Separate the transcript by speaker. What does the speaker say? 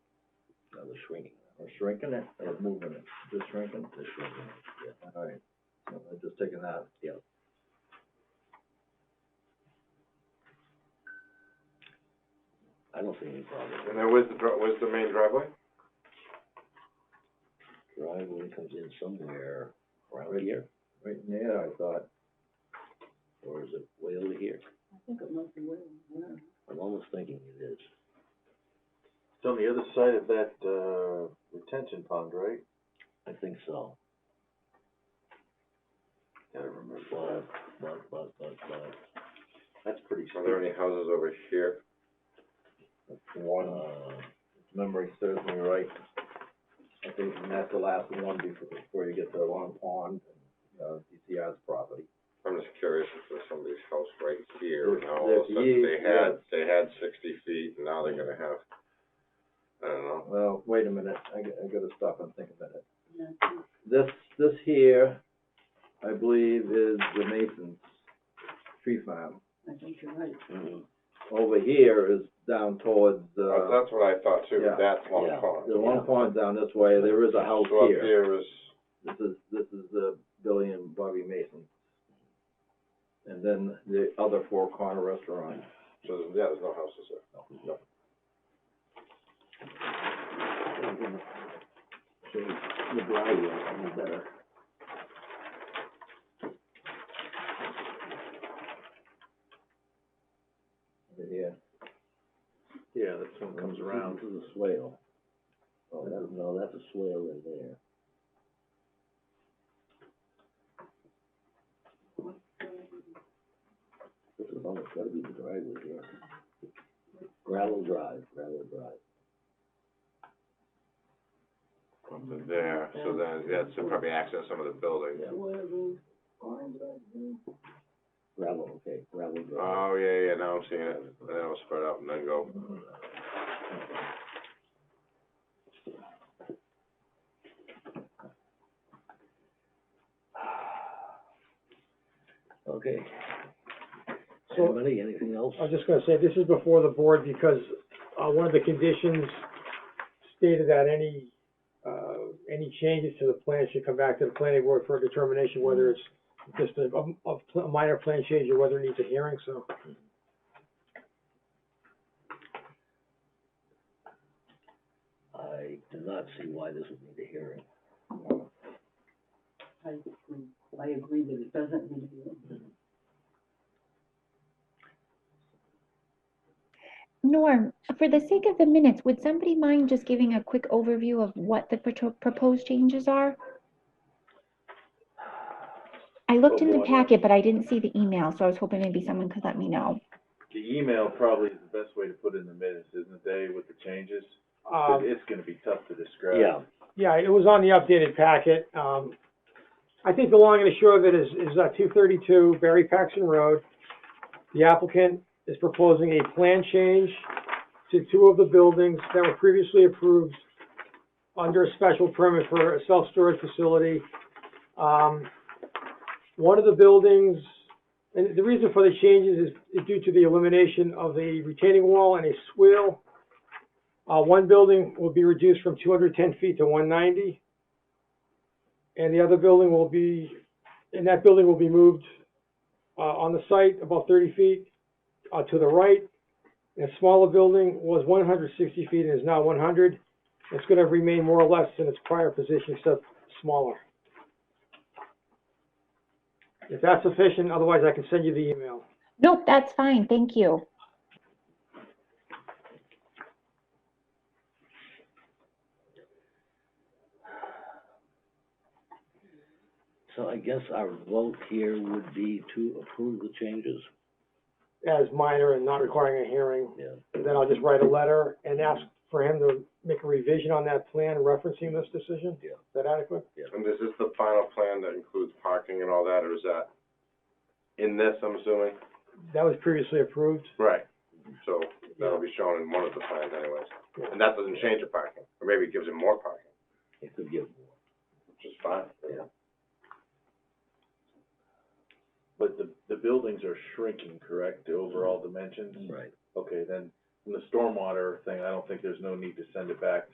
Speaker 1: the shrinking, or shrinking it, or moving it, just shrinking? Just shrinking, yeah. All right, so I'm just taking that. Yeah. I don't see any problem.
Speaker 2: And then where's the, dri- where's the main driveway?
Speaker 1: Driveway comes in somewhere around here. Right in there, I thought. Or is it way over here?
Speaker 3: I think it must be Wayland, yeah.
Speaker 1: I'm almost thinking it is.
Speaker 4: It's on the other side of that, uh, retention pond, right?
Speaker 1: I think so.
Speaker 4: Gotta remember.
Speaker 1: But, but, but, but, but.
Speaker 4: That's pretty
Speaker 2: Are there
Speaker 4: scary.
Speaker 2: any houses over here?
Speaker 1: one, uh, if memory serves me right. I think and that's the last one before, before you get to Long Pond, uh, DCR's property.
Speaker 2: I'm just curious if there's somebody's house right here, and
Speaker 1: There's- E
Speaker 2: now all of a
Speaker 1: there's
Speaker 2: sudden they
Speaker 1: years,
Speaker 2: had, they had sixty feet, and now they're gonna have, I don't know.
Speaker 1: Well, wait a minute, I, g- I gotta stop and think a minute.
Speaker 3: Yeah, it's-
Speaker 1: This, this here, I believe is the Mason's tree farm. Mm-hmm.
Speaker 3: I think you're right.
Speaker 1: Over here is down towards,
Speaker 2: That's,
Speaker 1: uh,
Speaker 2: that's what I thought too,
Speaker 1: yeah,
Speaker 2: that's Long
Speaker 1: yeah,
Speaker 2: Pond.
Speaker 1: the Long Pond down this way, there is a house
Speaker 2: So up
Speaker 1: here.
Speaker 2: here is,
Speaker 1: This is, this is the Billy and Bobby Mason. And then the other Four Corner Restaurant.
Speaker 2: so, there's- yeah, there's no houses there.
Speaker 1: The driveway, I know better. Yeah.
Speaker 4: Yeah, this one comes around.
Speaker 1: This is a swale. Oh, that, no, that's a swale in there. This is almost gotta be the driveway here. Gravel drive, gravel drive.
Speaker 2: Up to there, so then, that's probably access some of the building.
Speaker 3: It's Wayland, Orange, yeah.
Speaker 1: Gravel, okay, gravel drive.
Speaker 5: Uh.
Speaker 2: Oh, yeah, yeah, now I'm seeing it, and then it'll spread out and then go.
Speaker 1: Okay.
Speaker 5: So-
Speaker 1: Anybody, anything else?
Speaker 5: I was just gonna say, this is before the board because, uh, one of the conditions stated that any, uh, any changes to the plan should come back to the planning board for a determination whether it's just a, a, a minor plan change or whether it needs a hearing, so.
Speaker 1: I do not see why this would need a hearing.
Speaker 3: I agree, I agree that it doesn't need to be.
Speaker 6: Norm, for the sake of the minutes, would somebody mind just giving a quick overview of what the proto- proposed changes are? I looked in the packet, but I didn't see the email, so I was hoping maybe someone could let me know.
Speaker 4: The email probably is the best way to put in the minutes, isn't it, Dave, with the changes? 'Cause
Speaker 5: Um,
Speaker 4: it's gonna be tough to describe.
Speaker 5: yeah, it was on the updated packet, um, I think the long and the short of it is, is, uh, two thirty-two Barry Paxton Road. The applicant is proposing a plan change to two of the buildings that were previously approved under a special permit for a self-storage facility. Um, one of the buildings, and the reason for the changes is- is due to the elimination of the retaining wall and a swale. Uh, one building will be reduced from two hundred ten feet to one ninety. And the other building will be, and that building will be moved, uh, on the site about thirty feet, uh, to the right. And a smaller building was one hundred sixty feet and is now one hundred. It's gonna remain more or less in its prior position except smaller. If that's sufficient, otherwise I can send you the email.
Speaker 6: Nope, that's fine, thank you.
Speaker 1: So I guess our vote here would be to approve the changes.
Speaker 5: As minor and not requiring a hearing,
Speaker 1: Yeah.
Speaker 5: And then I'll just write a letter and ask for him to make a revision on that plan referencing this decision?
Speaker 1: Yeah.
Speaker 5: Is that adequate?
Speaker 2: And is this the final plan that includes parking and all that, or is that in this, I'm assuming?
Speaker 5: That was previously approved.
Speaker 2: Right. So that'll be shown in one of the plans anyways. And that doesn't change the parking, or maybe it gives it more parking,
Speaker 1: It could give more.
Speaker 2: which is fine.
Speaker 1: Yeah.
Speaker 4: But the, the buildings are shrinking, correct, the overall dimensions?
Speaker 1: Right.
Speaker 4: Okay, then, from the stormwater thing, I don't think there's no need to send it back